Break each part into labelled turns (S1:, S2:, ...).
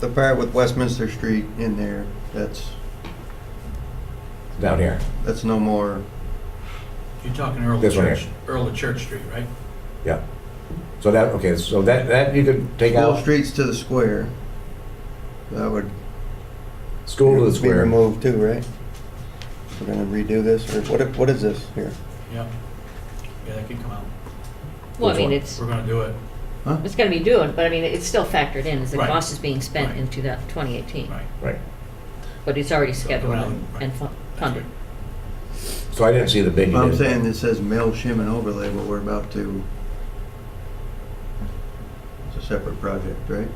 S1: The part with Westminster Street in there, that's,
S2: down here.
S1: that's no more,
S3: You're talking Earl
S2: This one
S3: Church, Earl of Church Street, right?
S2: Yeah. So that, okay, so that, that you could take
S1: school
S2: out,
S1: streets to the square. That would
S2: school to the
S1: be
S2: square.
S1: removed too, right? We're gonna redo this, or what, what is this here?
S3: Yeah. Yeah, that could come out.
S4: Well, I
S2: Which
S4: mean,
S2: one?
S4: it's,
S3: We're gonna do it,
S4: it's gonna be doing, but I mean, it's still factored in, as the
S3: Right.
S4: cost is being spent
S3: Right.
S4: in 2000 2018.
S3: right.
S2: Right.
S4: But it's already
S3: So it's
S4: scheduled
S3: around,
S4: and-
S3: right.
S4: and fu-
S3: That's
S4: funded.
S2: So I didn't see the bid you
S1: I'm
S2: did.
S1: saying it says mill, shim, and overlay, but we're about to, it's a separate project, right?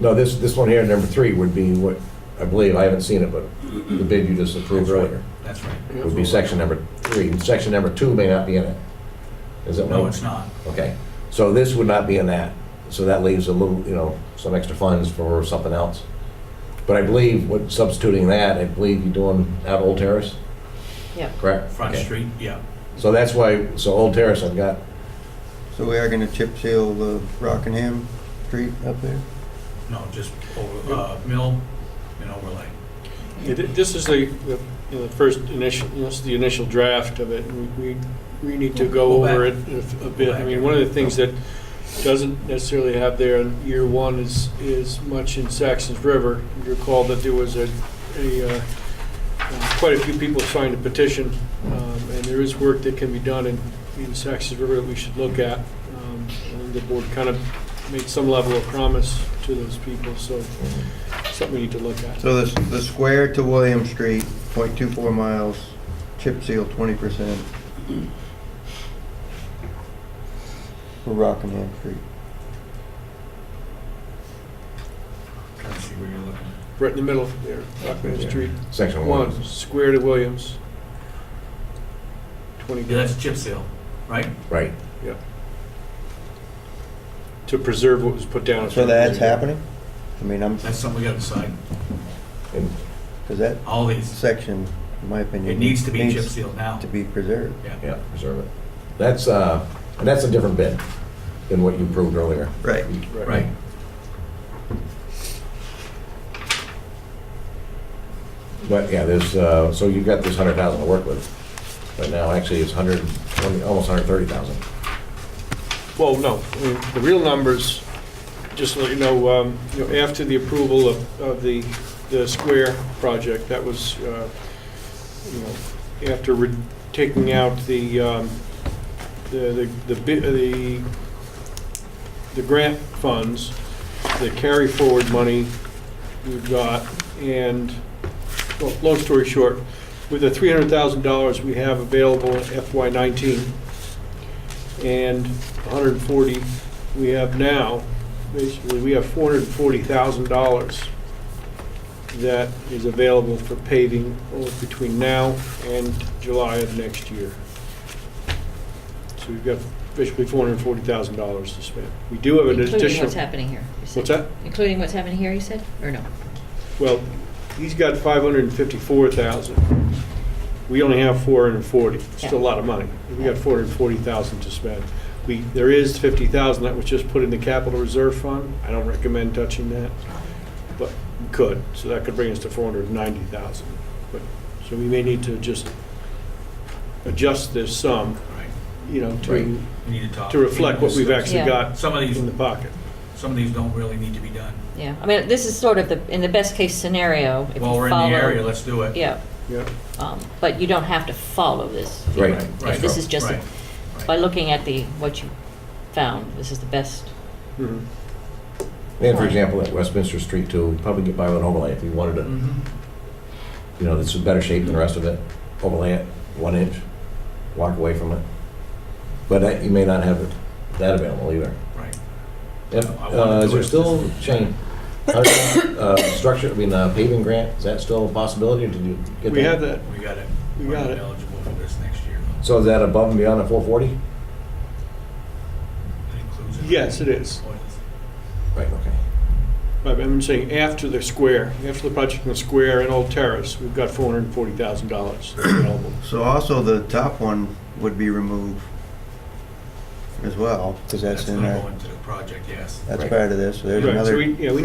S2: No, this, this one here, number three, would be what, I believe, I haven't seen it, but the bid you just approved
S3: That's right.
S2: earlier.
S3: That's right.
S2: Would be section number three. And Section number two may not be in it. Is it?
S3: No, it's not.
S2: Okay. So this would not be in that. So that leaves a little, you know, some extra funds for something else. But I believe, what, substituting that, I believe you're doing out Old Terrace,
S4: Yeah,
S2: correct?
S3: Front
S2: Okay.
S3: Street, yeah.
S2: So that's why, so Old Terrace, I've got
S1: So we are gonna chip seal the Rockingham Street up there?
S3: No, just over, uh, mill and overlay.
S5: Yeah, thi- This is the, the, you know, the first initial, this is the initial draft of it, and we, we need to go
S3: Go back.
S5: over it a a bit. I
S3: back.
S5: mean, one of the things that doesn't necessarily have there in year one is, is much in Saxon's River. You recall that there was a, a, uh, quite a few people signed a petition, um, and there is work that can be done in, in Saxon's River that we should look at. Um, And the board kind of made some level of promise to those people, so something we need to look at.
S1: So this, the square to William Street, 0.24 miles, chip seal twenty percent. For Rockingham Street.
S3: Trying to see where you're looking.
S5: Right in the middle there, Rockland Street.
S2: section one.
S5: One, square to Williams. Twenty
S3: Yeah, that's
S5: grand,
S3: chip seal, right?
S2: Right.
S5: to preserve what was put down.
S1: So that's happening? I mean, I'm,
S3: That's something we gotta decide.
S2: And
S1: because that
S3: All these,
S1: section, in my opinion.
S2: Mm-hmm.
S3: it needs to be chip sealed now.
S1: To be preserved.
S2: Yeah, preserve it. That's, uh, and that's a different bid than what you approved earlier.
S1: Right.
S3: Right.
S2: But, yeah, there's, uh, so you've got this hundred thousand to work with. But now, actually, it's hundred twenty, almost hundred thirty thousand.
S5: Well, no, I mean, the real numbers, just to let you know, um, you know, after the approval of, of the, the square project, that was, uh, you know, after re- taking out the, um, the, the, the bi- the, the grant funds, the carry forward money we've got, and, well, long story short, with the three hundred thousand dollars we have available in FY nineteen, and 140 we have now, basically, we have $440,000 that is available for paving oh, between now and July of next year. So we've got basically $440,000 to spend. We do have an
S4: including what's
S5: additional,
S4: happening here. you said.
S5: What's that?
S4: Including what's happening here, you said, or no?
S5: well, he's got 554,000. We only have 440, still a lot of money. We got 440,000 to spend. We, there is 50,000 that was just put in the capital reserve fund. I don't recommend touching that, but we could, so that could bring us to 490,000. But, so we may need to just adjust this sum,
S3: Right.
S5: you know,
S2: Right.
S5: to,
S3: We need to talk.
S5: to reflect what we've Mm-hmm. actually
S4: Yeah.
S5: got
S3: Some of these,
S5: in the pocket.
S3: some of these don't really need to be done.
S4: Yeah, I mean, this is sort of the, in the best-case scenario, if you follow.
S3: While we're in the area, let's do it.
S4: Yeah,
S5: Yeah.
S4: um, but you don't have to follow this. if you
S2: Right.
S4: want. If
S3: Right.
S4: This is just,
S3: Right.
S4: by looking at the, what you found, this is the best.
S5: Mhm.
S2: And for example, at Westminster Street too, probably get by with an overlay if you wanted to,
S4: Mm-hmm.
S3: Mhm.
S2: you know, this is better shape than the rest of it. Overlay it, one inch, walk away from it. But that, you may not have it- that available either.
S3: Right.
S2: Yep.
S3: I wanted
S2: Uh,
S3: to
S2: is there
S3: do it.
S2: still, Shane, uh, structure, I mean, uh, paving grant, is that still a possibility? or Did you get that?
S5: We have that,
S3: We got it.
S5: We
S3: We're
S5: got it.
S3: eligible for this next year. though.
S2: So is that above and beyond the four forty?
S3: That includes it.
S5: Yes, it is.
S3: Oh, it is.
S2: Right, okay.
S5: Right, but I'm saying after the square, after the project in the square and Old Terrace, we've got four hundred and forty thousand dollars available.
S1: So also the top one would be removed. as well, because that's in
S3: gonna
S1: there.
S3: go into the project, yes.
S1: That's
S2: Right.
S1: part of this, so there's
S5: Right, so
S1: another.
S5: we- yeah, we